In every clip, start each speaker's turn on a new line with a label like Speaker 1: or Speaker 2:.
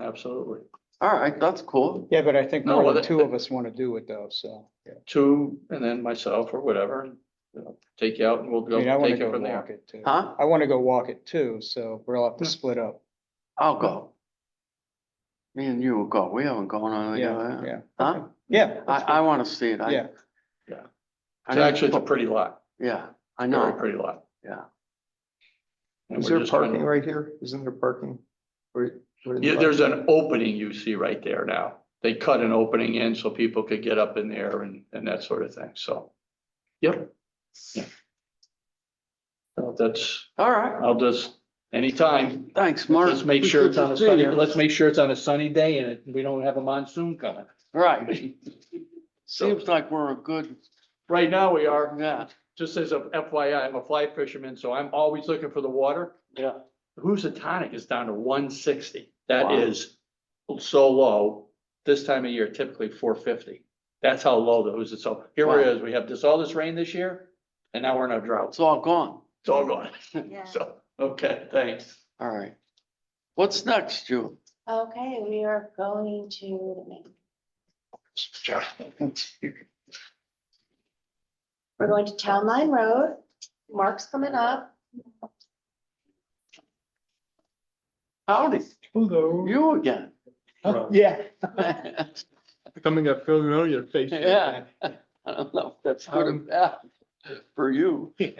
Speaker 1: absolutely.
Speaker 2: All right, that's cool.
Speaker 3: Yeah, but I think
Speaker 1: No,
Speaker 3: more
Speaker 1: well,
Speaker 3: than
Speaker 1: that-
Speaker 3: two of us want to do it though, so.
Speaker 1: Two, and then myself or whatever, and, you know, take you out and we'll
Speaker 3: I
Speaker 1: go
Speaker 3: mean, I want
Speaker 1: take
Speaker 3: to
Speaker 1: it
Speaker 3: go
Speaker 1: from there.
Speaker 3: walk it too.
Speaker 2: Huh?
Speaker 3: I want to go walk it too, so we'll have to
Speaker 1: Yeah.
Speaker 3: split up.
Speaker 2: I'll go. Me and you will go. We haven't gone on. any of
Speaker 3: Yeah,
Speaker 2: that.
Speaker 3: yeah.
Speaker 2: Huh?
Speaker 3: Yeah.
Speaker 2: I, I want to see it. I-
Speaker 3: Yeah.
Speaker 1: Yeah.
Speaker 2: I
Speaker 1: It's
Speaker 2: didn't-
Speaker 1: actually, it's a pretty lot,
Speaker 2: Yeah, I
Speaker 1: very
Speaker 2: know.
Speaker 1: pretty lot.
Speaker 2: Yeah.
Speaker 1: And
Speaker 4: Is
Speaker 1: we're
Speaker 4: there
Speaker 1: just trying to-
Speaker 4: parking right here? Isn't there parking? Where- where the
Speaker 1: Yeah, there's
Speaker 4: park-
Speaker 1: an opening you see right there now. They cut an opening in so people could get up in there and, and that sort of thing, so. Yep. Yeah. So that's,
Speaker 2: All right.
Speaker 1: I'll just, anytime,
Speaker 2: Thanks, Mark.
Speaker 1: let's make sure it's on a sunny, let's make sure it's on a sunny day and it- we don't have a monsoon coming.
Speaker 2: Right.
Speaker 1: So,
Speaker 2: Seems like we're a good,
Speaker 1: right now we are,
Speaker 2: yeah,
Speaker 1: just as a FYI, I'm a fly fisherman, so I'm always looking for the water.
Speaker 2: yeah.
Speaker 1: Housatonic is down to one sixty. That
Speaker 2: Wow.
Speaker 1: is so low. This time of year, typically four fifty. That's how low the Housat, so here
Speaker 2: Wow.
Speaker 1: it is. We have this, all this rain this year, and now we're in a drought.
Speaker 2: It's all gone.
Speaker 1: It's all gone.
Speaker 5: Yeah,
Speaker 1: So, okay, thanks.
Speaker 2: All right. What's next, Jude?
Speaker 5: okay, we are going to, the main- we're going to Town Line Road. Mark's coming up.
Speaker 2: Howdy,
Speaker 4: Hello.
Speaker 2: you again.
Speaker 3: Yeah.
Speaker 4: Coming up, filling on your face.
Speaker 2: Yeah. I don't know if that's good or
Speaker 4: Um,
Speaker 2: bad for you.
Speaker 4: I'm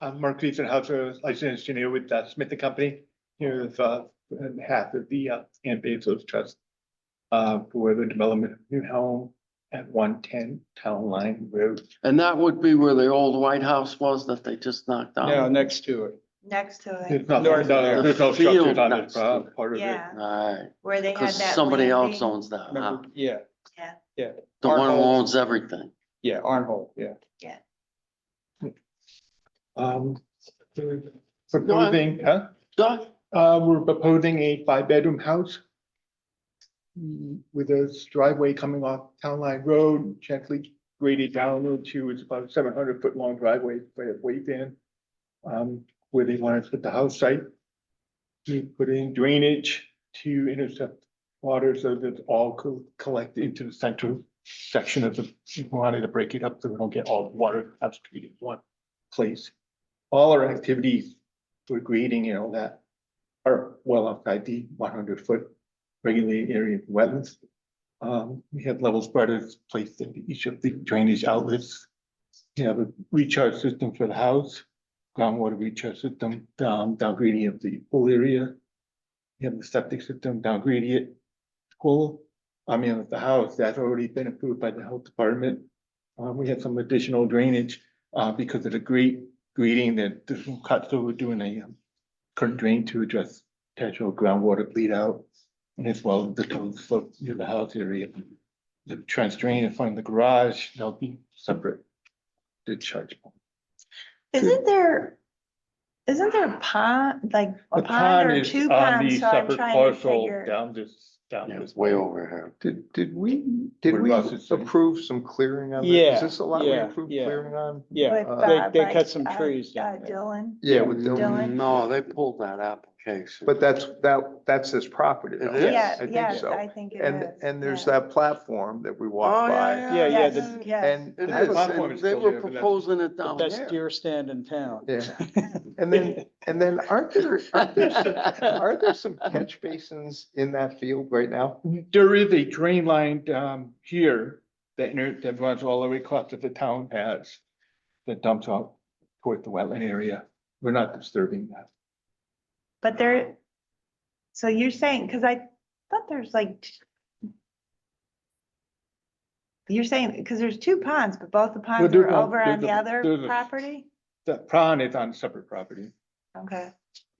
Speaker 4: uh, Mark Riesenhauser, licensed engineer with uh, Smith and Company, here with uh, on behalf of the uh, Aunt Bezos Trust uh, for the development of new home at one ten Town Line Road.
Speaker 2: And that would be where the old White House was that they just knocked down.
Speaker 3: No, next to it.
Speaker 5: Next to
Speaker 4: There's no,
Speaker 3: North-
Speaker 4: no- there's no structures on
Speaker 2: Field
Speaker 4: this uh, part of it.
Speaker 5: Yeah,
Speaker 2: All right,
Speaker 5: where they had
Speaker 2: because
Speaker 5: that.
Speaker 2: somebody else
Speaker 5: landing.
Speaker 2: owns
Speaker 4: Uh-huh.
Speaker 2: that, huh?
Speaker 3: Remember? Yeah,
Speaker 5: Yeah,
Speaker 2: the one who
Speaker 3: Arnold.
Speaker 2: owns everything.
Speaker 3: yeah, Arnhold, yeah.
Speaker 4: Um, we're Proposing, huh?
Speaker 2: Doug,
Speaker 4: Uh, we're proposing a five-bedroom house mm, with a driveway coming off Town Line Road, gently graded down a little to, it's about seven hundred foot long driveway, by a weight in. Um, where they want to put the house site. To put in drainage to intercept water so that all co- collect into the central section of the, we wanted to break it up so we don't get all the water concentrated in one place. All our activities for grading and all that are well outside the one hundred foot regulated area of wetlands. Um, we have level spreaders placed in each of the drainage outlets. We have a recharge system for the house, groundwater recharge system down, down gradient of the pool area. We have the septic system down gradient, pool, I mean, of the house, that's already been approved by the health department. Um, we had some additional drainage, uh, because of the great grading that this one cut, so we're doing a um, current drain to address potential groundwater bleed out. And as well, as the total slope near the house area, the trench drain in front of the garage, they'll be separate. Discharge.
Speaker 6: Isn't there, isn't there a pond, like
Speaker 4: The
Speaker 6: a pond or
Speaker 4: is
Speaker 6: two
Speaker 4: on
Speaker 6: ponds?
Speaker 4: the
Speaker 6: So I'm
Speaker 4: separate
Speaker 6: trying to
Speaker 4: parcel
Speaker 6: figure.
Speaker 4: Down this, down
Speaker 2: yeah,
Speaker 4: this.
Speaker 2: it's way over here.
Speaker 7: Did, did we, did
Speaker 4: What
Speaker 7: we
Speaker 4: Russ is saying.
Speaker 7: approve some clearing on that?
Speaker 3: Yeah,
Speaker 7: Is this a lot we
Speaker 3: yeah,
Speaker 7: approved
Speaker 3: yeah.
Speaker 7: clearing on?
Speaker 3: Yeah,
Speaker 6: with,
Speaker 7: Uh,
Speaker 3: they,
Speaker 6: uh,
Speaker 3: they
Speaker 6: like,
Speaker 3: cut some
Speaker 6: uh,
Speaker 3: trees down
Speaker 6: uh,
Speaker 3: there.
Speaker 6: Dylan,
Speaker 7: Yeah, with
Speaker 6: Dylan.
Speaker 7: the,
Speaker 6: Dylan?
Speaker 2: No, they pulled that application.
Speaker 7: but that's, that, that's this property
Speaker 2: It
Speaker 7: though.
Speaker 2: is.
Speaker 6: yeah,
Speaker 7: Yes, I think
Speaker 6: yes, I
Speaker 7: so.
Speaker 6: think it is.
Speaker 7: And, and there's
Speaker 6: yeah.
Speaker 7: that platform that we
Speaker 2: Oh,
Speaker 7: walked by.
Speaker 2: yeah,
Speaker 3: Yeah,
Speaker 2: yeah.
Speaker 3: yeah,
Speaker 2: yeah.
Speaker 3: the-
Speaker 6: Yes.
Speaker 7: And,
Speaker 2: It
Speaker 4: Yeah,
Speaker 2: is,
Speaker 4: platform
Speaker 2: and
Speaker 4: is
Speaker 2: they
Speaker 4: still
Speaker 2: were
Speaker 4: there, but that's-
Speaker 2: proposing it down
Speaker 3: Best
Speaker 2: there.
Speaker 3: deer stand in town.
Speaker 7: yeah, and then, and then aren't there, aren't there, some- aren't there some catch basins in that field right now?
Speaker 4: There is a drain line um here that inter- that runs all the way across that the town has. That dumps out toward the wetland area. We're not disturbing that.
Speaker 6: But there, so you're saying, because I thought there's like. t- You're saying, because there's two ponds, but both the ponds
Speaker 4: there's
Speaker 6: are
Speaker 4: no-
Speaker 6: over on
Speaker 4: there's
Speaker 6: the
Speaker 4: a-
Speaker 6: other
Speaker 4: there's a-
Speaker 6: property?
Speaker 4: The pond is on separate property.
Speaker 6: Okay.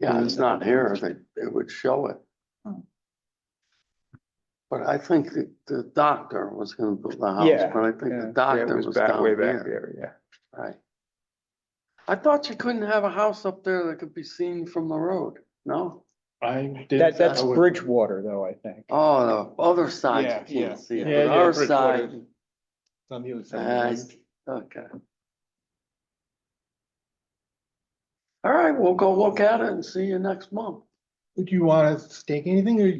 Speaker 2: Yeah, it's not here, they, it would show it.
Speaker 6: Hmm.
Speaker 2: But I think the, the doctor was gonna build the house,
Speaker 3: Yeah,
Speaker 2: but I think
Speaker 3: yeah.
Speaker 2: the
Speaker 7: Yeah, it
Speaker 2: doctor was
Speaker 7: back-
Speaker 2: down
Speaker 7: Way back
Speaker 2: here,
Speaker 7: there, yeah.
Speaker 2: right? I thought you couldn't have a house up there that could be seen from the road, no?
Speaker 4: I did.
Speaker 3: That, that's
Speaker 4: I would-
Speaker 3: Bridgewater though, I think.
Speaker 2: Oh, the other
Speaker 3: Yeah,
Speaker 2: side, you
Speaker 3: yeah.
Speaker 2: can't see
Speaker 4: Yeah,
Speaker 2: it,
Speaker 4: yeah,
Speaker 2: but our
Speaker 4: Bridgewater.
Speaker 2: side,
Speaker 4: It's On the other
Speaker 2: uh,
Speaker 4: side.
Speaker 2: okay. All right, we'll go look at it and see you next month.
Speaker 4: Would you want to stake anything or